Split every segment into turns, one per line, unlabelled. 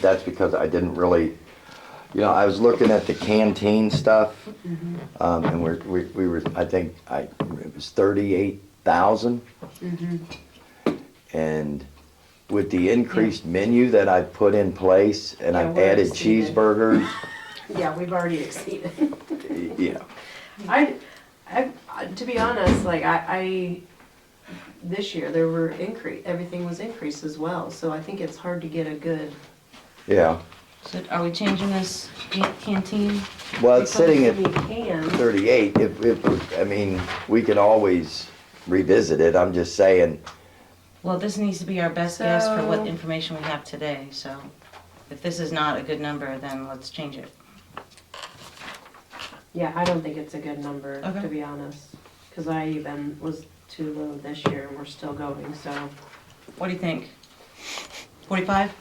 that's because I didn't really, you know, I was looking at the canteen stuff, um, and we're, we, we were, I think, I, it was thirty-eight thousand. And with the increased menu that I put in place, and
Yeah,
I've
we're
added
exceeded.
cheeseburgers,
Yeah, we've already exceeded.
you know,
I, I, to be honest, like I, I, this year there were increase, everything was increased as well, so I think it's hard to get a good.
yeah.
So are we changing this can- canteen?
Well, it's Uh, sitting at
We can,
38, if, if, I mean, we can always revisit it, I'm just saying,
Well, this needs to be our best guess for
So-
what information we have today, so if this is not a good number, then let's change it.
yeah, I don't think it's a good number, to
Okay.
be honest, cause I even was too low this year and we're still going, so
What do you think? Forty-five?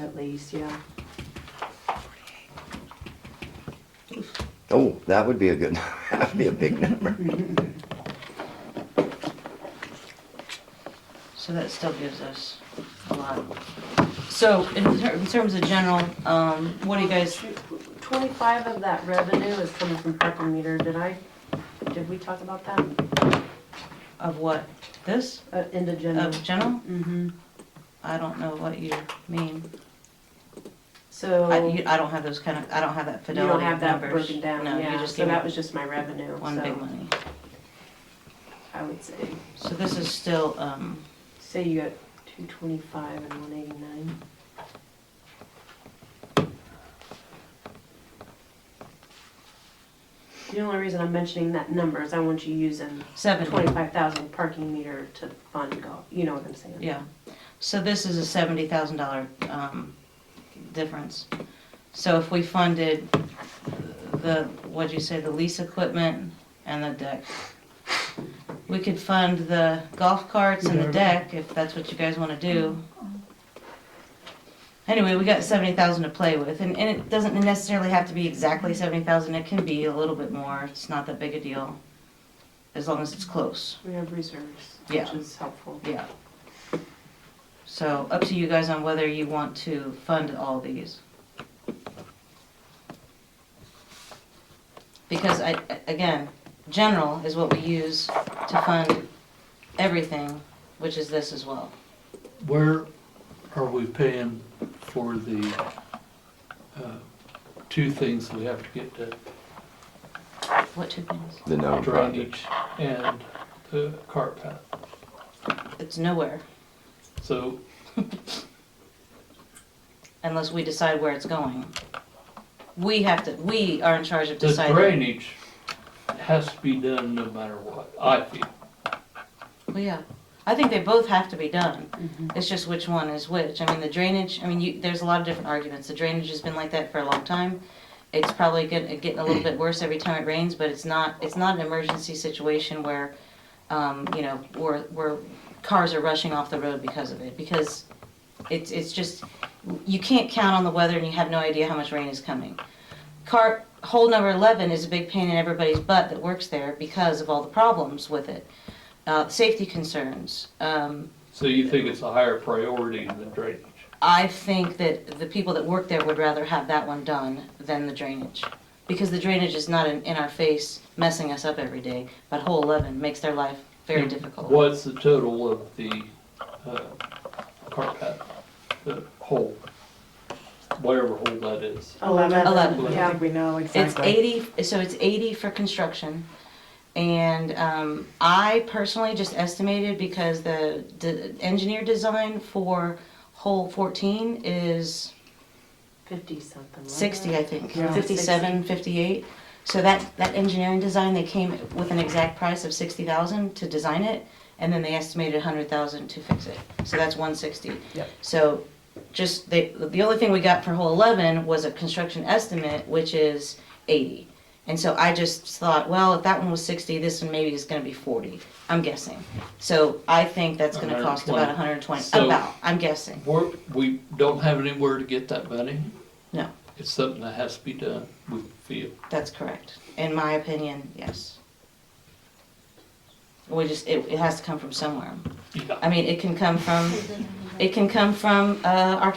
at least, yeah.
oh, that would be a good, that'd be a big number.
So that still gives us a lot. So in ter- in terms of general, um, what do you guys,
Twenty-five of that revenue is coming from parking meter, did I, did we talk about that,
of what? This?
uh, in the general?
Of general?
Mm-hmm,
I don't know what you mean.
so.
I, you, I don't have those kind of, I don't have that
You
fidelity
don't
of numbers.
have that broken down,
No, you
yeah,
just
so
gave
that
me
was just my revenue,
one big
so
money.
I would say,
So this is still, um,
say you got two twenty-five and one eighty-nine. The only reason I'm mentioning that number is I want you using
seventy,
twenty-five thousand parking meter to fund golf, you know what I'm saying?
yeah. So this is a seventy thousand dollar, um, difference. So if we funded the, what'd you say, the lease equipment and the deck, we could fund the golf carts and the deck, if that's what you guys wanna do. Anyway, we got seventy thousand to play with, and, and it doesn't necessarily have to be exactly seventy thousand, it can be a little bit more, it's not that big a deal. As long as it's close.
We have reserves,
Yeah.
which is helpful.
Yeah. So up to you guys on whether you want to fund all these. Because I, I- again, general is what we use to fund everything, which is this as well.
Where are we paying for the uh, two things we have to get to
What two things?
The
drainage and the cart path?
It's nowhere,
So,
unless we decide where it's going. We have to, we are in charge of
the
deciding.
drainage has to be done no matter what, I feel.
Well, yeah, I think they both have to be done. It's just which one is which. I mean, the drainage, I mean, you, there's a lot of different arguments. The drainage has been like that for a long time. It's probably getting, getting a little bit worse every time it rains, but it's not, it's not an emergency situation where, um, you know, where, where cars are rushing off the road because of it, because it's, it's just, you can't count on the weather and you have no idea how much rain is coming. Car, hole number eleven is a big pain in everybody's butt that works there because of all the problems with it. Uh, safety concerns, um,
So you think it's a higher priority than drainage?
I think that the people that work there would rather have that one done than the drainage. Because the drainage is not in, in our face messing us up every day, but hole eleven makes their life very
And
difficult.
What's the total of the uh, cart path, the hole? Whatever hole that is.
Eleven.
Eleven.
I
Yeah.
think we know
It's
exactly.
eighty, so it's eighty for construction. And, um, I personally just estimated because the, the engineer design for hole fourteen is
Fifty something. wasn't
sixty,
it?
I think,
Yeah.
fifty-seven, fifty-eight. So that, that engineering design, they came with an exact price of sixty thousand to design it, and then they estimated a hundred thousand to fix it. So that's one sixty.
Yep.
So just, they, the only thing we got for hole eleven was a construction estimate, which is eighty. And so I just thought, well, if that one was sixty, this one maybe is gonna be forty, I'm guessing. So I think that's gonna cost about a hundred and twenty,
So-
about, I'm guessing.
We're, we don't have anywhere to get that money.
No.
It's something that has to be done, we feel.
That's correct. In my opinion, yes. We just, it, it has to come from somewhere.
Yeah.
I mean, it can come from, it can come from, uh, our